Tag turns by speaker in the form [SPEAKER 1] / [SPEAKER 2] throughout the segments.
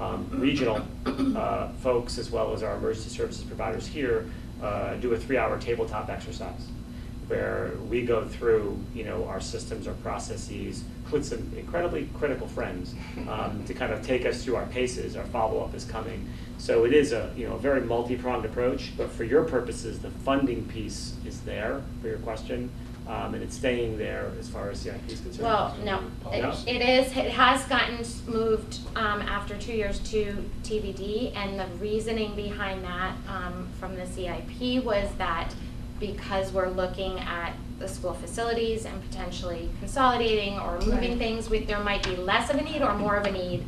[SPEAKER 1] um, regional uh, folks, as well as our emergency services providers here, uh, do a three-hour tabletop exercise where we go through, you know, our systems, our processes, with some incredibly critical friends um, to kind of take us through our paces, our follow-up is coming. So it is a, you know, a very multi-pronged approach, but for your purposes, the funding piece is there for your question, um, and it's staying there as far as CIP is concerned.
[SPEAKER 2] Well, no, it
[SPEAKER 1] Yeah.
[SPEAKER 2] it is, it has gotten s- moved um, after two years to TBD, and the reasoning behind that um, from the CIP was that because we're looking at the school facilities and potentially consolidating or moving
[SPEAKER 3] Right.
[SPEAKER 2] things, we- there might be less of a need or more of a need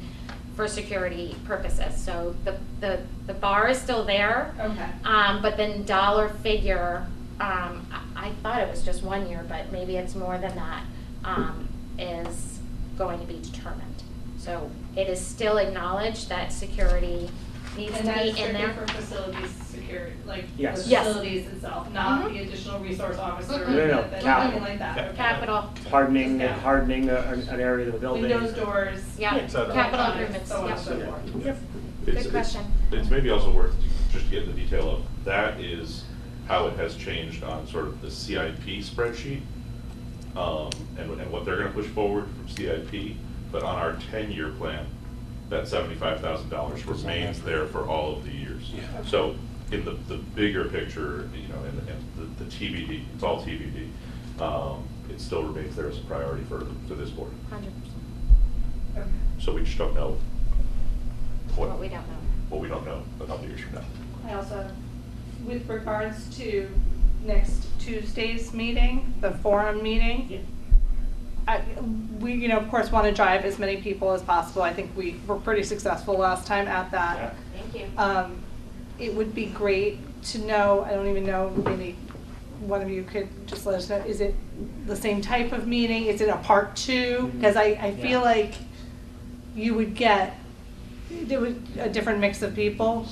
[SPEAKER 2] for security purposes. So the, the, the bar is still there.
[SPEAKER 3] Okay.
[SPEAKER 2] Um, but then dollar figure, um, I, I thought it was just one year, but maybe it's more than that, um, is going to be determined. So it is still acknowledged that security needs to
[SPEAKER 3] And that is
[SPEAKER 2] be in
[SPEAKER 3] strictly
[SPEAKER 2] there.
[SPEAKER 3] for facilities security, like the
[SPEAKER 1] Yes.
[SPEAKER 2] Yes.
[SPEAKER 3] facilities itself, not
[SPEAKER 2] Mhm.
[SPEAKER 3] the additional resource officer,
[SPEAKER 2] Mm-mm.
[SPEAKER 3] or
[SPEAKER 2] No,
[SPEAKER 1] no, no,
[SPEAKER 3] anything
[SPEAKER 1] capital.
[SPEAKER 3] like that. okay.
[SPEAKER 2] Capital,
[SPEAKER 1] Hardening, hardening a- an an area of the building.
[SPEAKER 3] Windows, doors.
[SPEAKER 2] yeah,
[SPEAKER 4] Et cetera.
[SPEAKER 2] capital
[SPEAKER 3] electronics,
[SPEAKER 2] improvements,
[SPEAKER 3] So on and
[SPEAKER 2] yeah.
[SPEAKER 3] so forth.
[SPEAKER 1] Yep.
[SPEAKER 2] Good
[SPEAKER 5] It's- it's-
[SPEAKER 2] question.
[SPEAKER 5] It's maybe also worth to- just to get into detail of, that is how it has changed on sort of the CIP spreadsheet, um, and what- and what they're gonna push forward from CIP, but on our ten-year plan, that seventy-five thousand dollars remains there for all of the years.
[SPEAKER 4] Yeah.
[SPEAKER 5] So in the, the bigger picture, you know, and, and the the TBD, it's all TBD, um, it still remains there as a priority for, for this board.
[SPEAKER 2] Hundred percent,
[SPEAKER 3] Okay.
[SPEAKER 5] So we just don't know
[SPEAKER 2] what we don't know.
[SPEAKER 5] what we don't know a couple years from now.
[SPEAKER 3] I also, with regards to next Tuesday's meeting, the forum meeting,
[SPEAKER 1] Yeah.
[SPEAKER 3] I, we, you know, of course, want to drive as many people as possible. I think we were pretty successful last time at that.
[SPEAKER 2] Thank you.
[SPEAKER 3] Um, it would be great to know, I don't even know, maybe one of you could just let us know, is it the same type of meeting? Is it a part two? Because I, I
[SPEAKER 1] Mm-hmm. Yeah.
[SPEAKER 3] feel like you would get, there would, a different mix of people.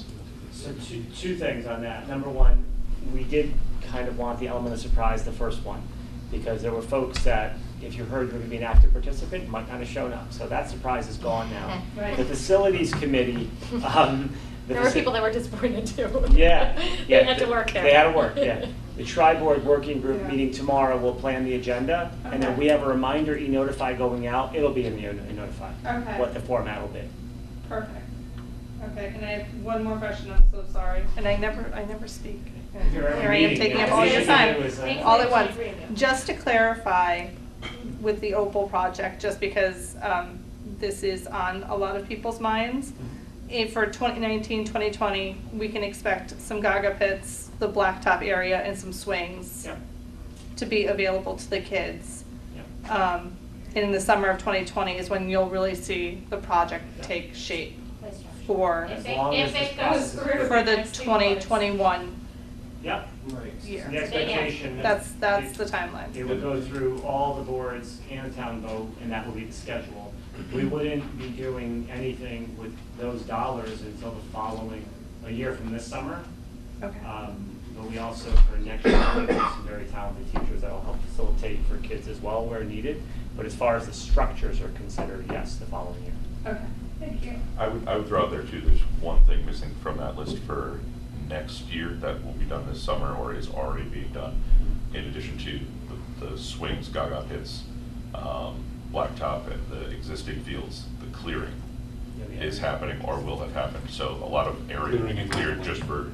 [SPEAKER 1] So two, two things on that. Number one, we did kind of want the element of surprise the first one, because there were folks that, if you heard you were gonna be an active participant, might not have shown up. So that surprise is gone now.
[SPEAKER 3] Right.
[SPEAKER 1] The facilities committee, um. the
[SPEAKER 2] There were
[SPEAKER 1] faci-
[SPEAKER 2] people that were disappointed too.
[SPEAKER 1] Yeah, yeah.
[SPEAKER 2] They had to work there.
[SPEAKER 1] They had to work, yeah. The tri-board working group
[SPEAKER 3] Yeah.
[SPEAKER 1] meeting tomorrow will plan the agenda, and then
[SPEAKER 3] Okay.
[SPEAKER 1] we have a reminder e-notify going out. It'll be in the e-notify.
[SPEAKER 3] Okay.
[SPEAKER 1] What the format will be.
[SPEAKER 3] Perfect. Okay, and I have one more question, I'm so sorry. And I never, I never speak.
[SPEAKER 1] You're at a
[SPEAKER 3] Here I am
[SPEAKER 1] meeting,
[SPEAKER 3] taking
[SPEAKER 1] yeah.
[SPEAKER 3] up all your
[SPEAKER 1] It was, uh,
[SPEAKER 3] time,
[SPEAKER 1] Thanks,
[SPEAKER 3] all at
[SPEAKER 2] Nancy,
[SPEAKER 3] once.
[SPEAKER 2] for reading it.
[SPEAKER 3] Just to clarify with the Opal project, just because um, this is on a lot of people's minds, if for 2019, 2020, we can expect some gaga pits, the blacktop area, and some swings
[SPEAKER 1] Yep,
[SPEAKER 3] to be available to the kids.
[SPEAKER 1] yep.
[SPEAKER 3] Um, And in the summer of 2020 is when you'll really see the project take shape for
[SPEAKER 2] If
[SPEAKER 1] As
[SPEAKER 2] it-
[SPEAKER 1] long
[SPEAKER 2] if
[SPEAKER 1] as this
[SPEAKER 2] it goes
[SPEAKER 1] process is-
[SPEAKER 2] through.
[SPEAKER 3] for the
[SPEAKER 2] Next two months.
[SPEAKER 3] 2021
[SPEAKER 1] Yep.
[SPEAKER 3] year.
[SPEAKER 1] The expectation. that
[SPEAKER 3] That's, that's the
[SPEAKER 1] it- It
[SPEAKER 3] timeline.
[SPEAKER 1] would go through all the boards and town vote, and that will be the schedule. We wouldn't be doing anything with those dollars until the following, a year from this summer.
[SPEAKER 3] Okay.
[SPEAKER 1] Um, But we also, for next year, we have some very talented teachers that will help facilitate for kids as well where needed. But as far as the structures are considered, yes, the following year.
[SPEAKER 3] Okay, thank you.
[SPEAKER 5] I would, I would throw out there too, there's one thing missing from that list for next year that will be done this summer or is already being done. In addition to the, the swings, gaga pits, um, blacktop and the existing fields, the clearing is happening or will have happened. So a lot of area will be cleared just for,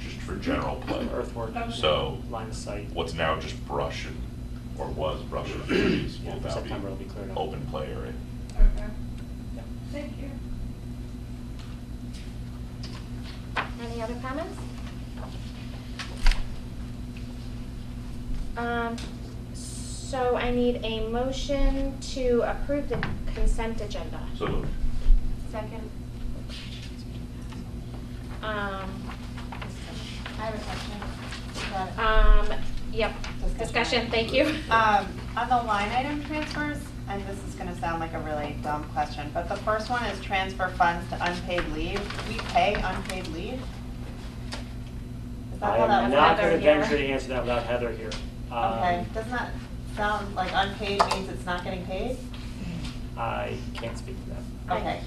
[SPEAKER 5] just for general play.
[SPEAKER 1] Earthwork,
[SPEAKER 3] Oh,
[SPEAKER 5] So
[SPEAKER 1] line of sight.
[SPEAKER 5] what's now just brush and, or was brush and trees
[SPEAKER 1] Yeah,
[SPEAKER 5] will
[SPEAKER 1] for
[SPEAKER 5] now
[SPEAKER 1] September it'll be
[SPEAKER 5] be
[SPEAKER 1] cleared up.
[SPEAKER 5] open play area.
[SPEAKER 3] Okay,
[SPEAKER 1] Yeah.
[SPEAKER 3] thank you.
[SPEAKER 2] Any other comments? Um, so I need a motion to approve the consent agenda.
[SPEAKER 5] So moved.
[SPEAKER 2] Second. Um,
[SPEAKER 6] I have a question about it.
[SPEAKER 2] um, yep, discussion, thank you.
[SPEAKER 6] Um, on the line item transfers, and this is gonna sound like a really dumb question, but the first one is transfer funds to unpaid leave. We pay unpaid leave? Is that
[SPEAKER 1] I
[SPEAKER 6] how
[SPEAKER 1] am
[SPEAKER 6] that
[SPEAKER 1] not
[SPEAKER 6] works?
[SPEAKER 1] going
[SPEAKER 2] Heather
[SPEAKER 1] to
[SPEAKER 2] here.
[SPEAKER 1] venture to answer that without Heather here. Um,
[SPEAKER 6] Okay, doesn't that sound like unpaid means it's not getting paid?
[SPEAKER 1] I can't speak to that.
[SPEAKER 6] Okay.